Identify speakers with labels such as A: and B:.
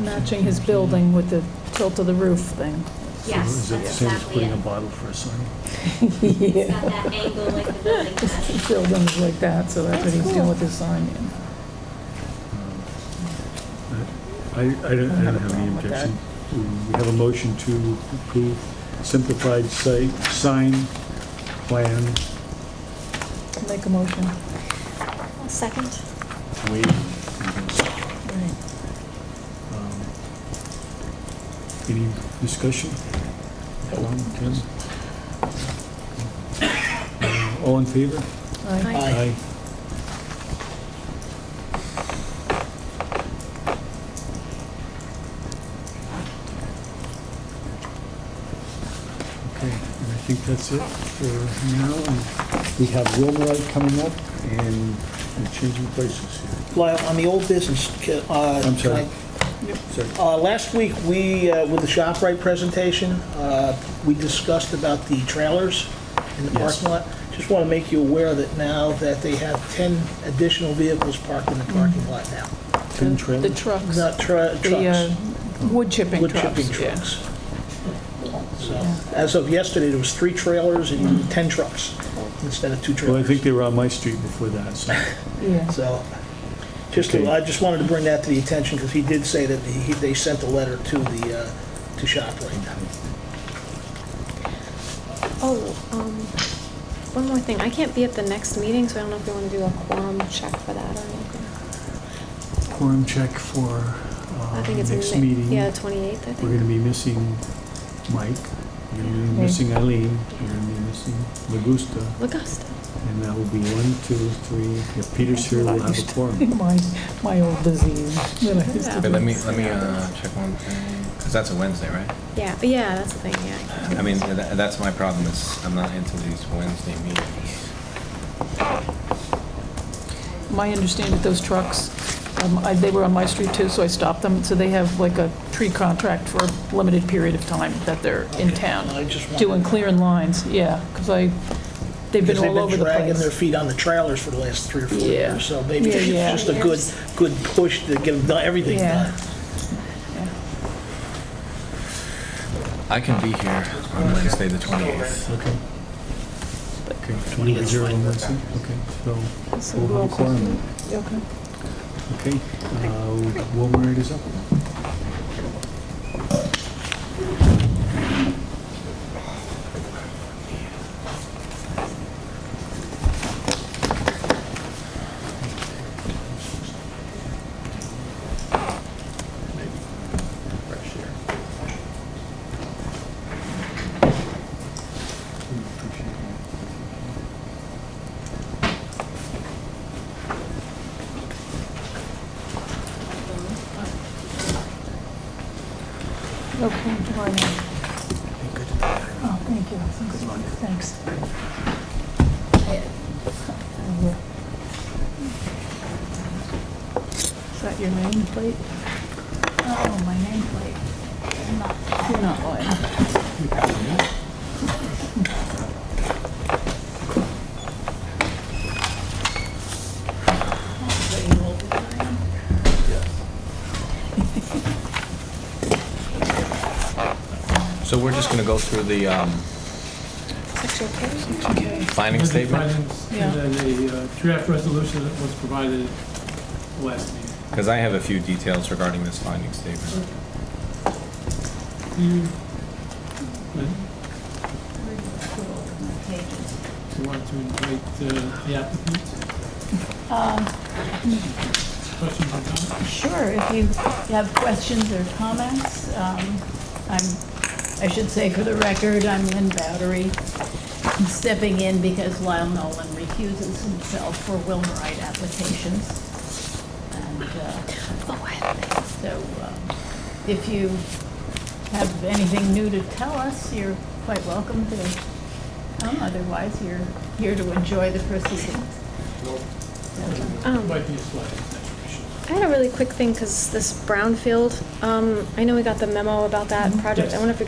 A: matching his building with the tilt of the roof thing.
B: Yes,
C: Is it the
B: that's
C: same as
B: exactly
C: putting a
B: it.
C: bottle for a sign?
B: It's got that angle like the building has.
A: Buildings like that, so that's what he's doing with his sign. yeah.
C: Uh, I, I don't I don't have any
A: problem with that.
C: objection. We have a motion to approve simplified site, sign, plan,
A: Make a motion.
D: Second.
C: waiver. Um, Any discussion? Tom, Tim? Uh, All in favor?
A: Aye.
C: Aye. Okay, and I think that's it for now. And We have Wilmerite coming up and we're changing places here.
E: Lyle, on the old business, ca- uh...
C: I'm sorry.
E: can
C: Sorry.
E: I- uh, Last week, we, uh, with the ShopRite presentation, uh, we discussed about the trailers in the
C: Yes.
E: parking lot. Just want to make you aware that now that they have 10 additional vehicles parked in the
A: Mm.
E: parking lot now.
D: Oh,
C: Tim
A: The
C: Traylor?
A: trucks,
E: Not tra-
A: the uh,
E: trucks,
A: wood chipping
E: wood
A: trucks,
E: chipping
A: yeah.
E: trucks. So, as of yesterday, there was three trailers and 10 trucks instead of two
C: Well, I
E: trailers.
C: think they were on my street before that, so.
A: Yeah.
E: So, just, to-
C: Okay.
E: I just wanted to bring that to the attention, because he did say that he, they sent a letter to the, uh, to ShopRite.
D: Oh, um, one more thing. I can't be at the next meeting, so I don't know if you want to do a quorum check for that or anything.
C: Quorum check for
D: I
C: uh,
D: think it's
C: next
D: in the-
C: meeting.
D: Yeah, the 28th, I
C: We're going to
D: think.
C: be missing Mike, we're going to be
A: Okay.
C: missing Eileen, we're going to be missing Magusta,
D: Augusta.
C: and that will be one, two, three, if Peter's here, we'll have a forum.
A: My, my old disease. that I used to
F: Wait, let
A: be.
F: me, let me uh, check one thing, because that's a Wednesday, right?
D: Yeah, but yeah, that's the thing, yeah.
F: I mean, tha- that's my problem, is I'm not into these Wednesday meetings.
A: My understanding, those trucks, um, I- they were on my street too, so I stopped them. So they have like a tree contract for a limited period of time that they're in
E: I
A: town,
E: just wanted-
A: doing clearing lines, yeah, because I, they've been
E: Because
A: all over the
E: Dragging their
A: place.
E: feet on the trailers for the last three or four
A: Yeah.
E: years, so maybe
A: Yeah, yeah.
E: it's just a good, good push to get them done- everything
A: Yeah.
E: done.
F: I can be here on Wednesday, the 28th.
C: Okay. Okay, 20 to 0 on Wednesday, okay, so
A: So
C: we'll
A: we'll-
C: have a quorum,
A: Okay.
C: okay? uh, Wilmerite is up.
A: Okay, July ninth. Oh, thank you. Thanks. Is that your nameplate? Oh, my nameplate. You're not lying.
F: So we're just going to go through the um,
D: Section K?
A: Okay.
F: finding statement,
G: Findings,
A: Yeah.
G: And then the uh, draft resolution that was provided last meeting.
F: because I have a few details regarding this finding statement.
G: You- but Do you want to invite uh, the applicant? Questions or comments?
H: Sure, if you have questions or comments, um, I'm, I should say for the record, I'm Lynn Bowdery, I'm stepping in because Lyle Nolan refuses himself for Wilmerite applications. And uh,
D: Oh, I have it.
H: so um, if you have anything new to tell us, you're quite welcome to come, otherwise you're here to enjoy the proceedings.
D: Um,
G: Invite the slide, that's your issue.
D: I had a really quick thing, because this brownfield, um, I know we got the memo about that project. I
C: Mm-hmm.
G: Yes.
D: wonder if we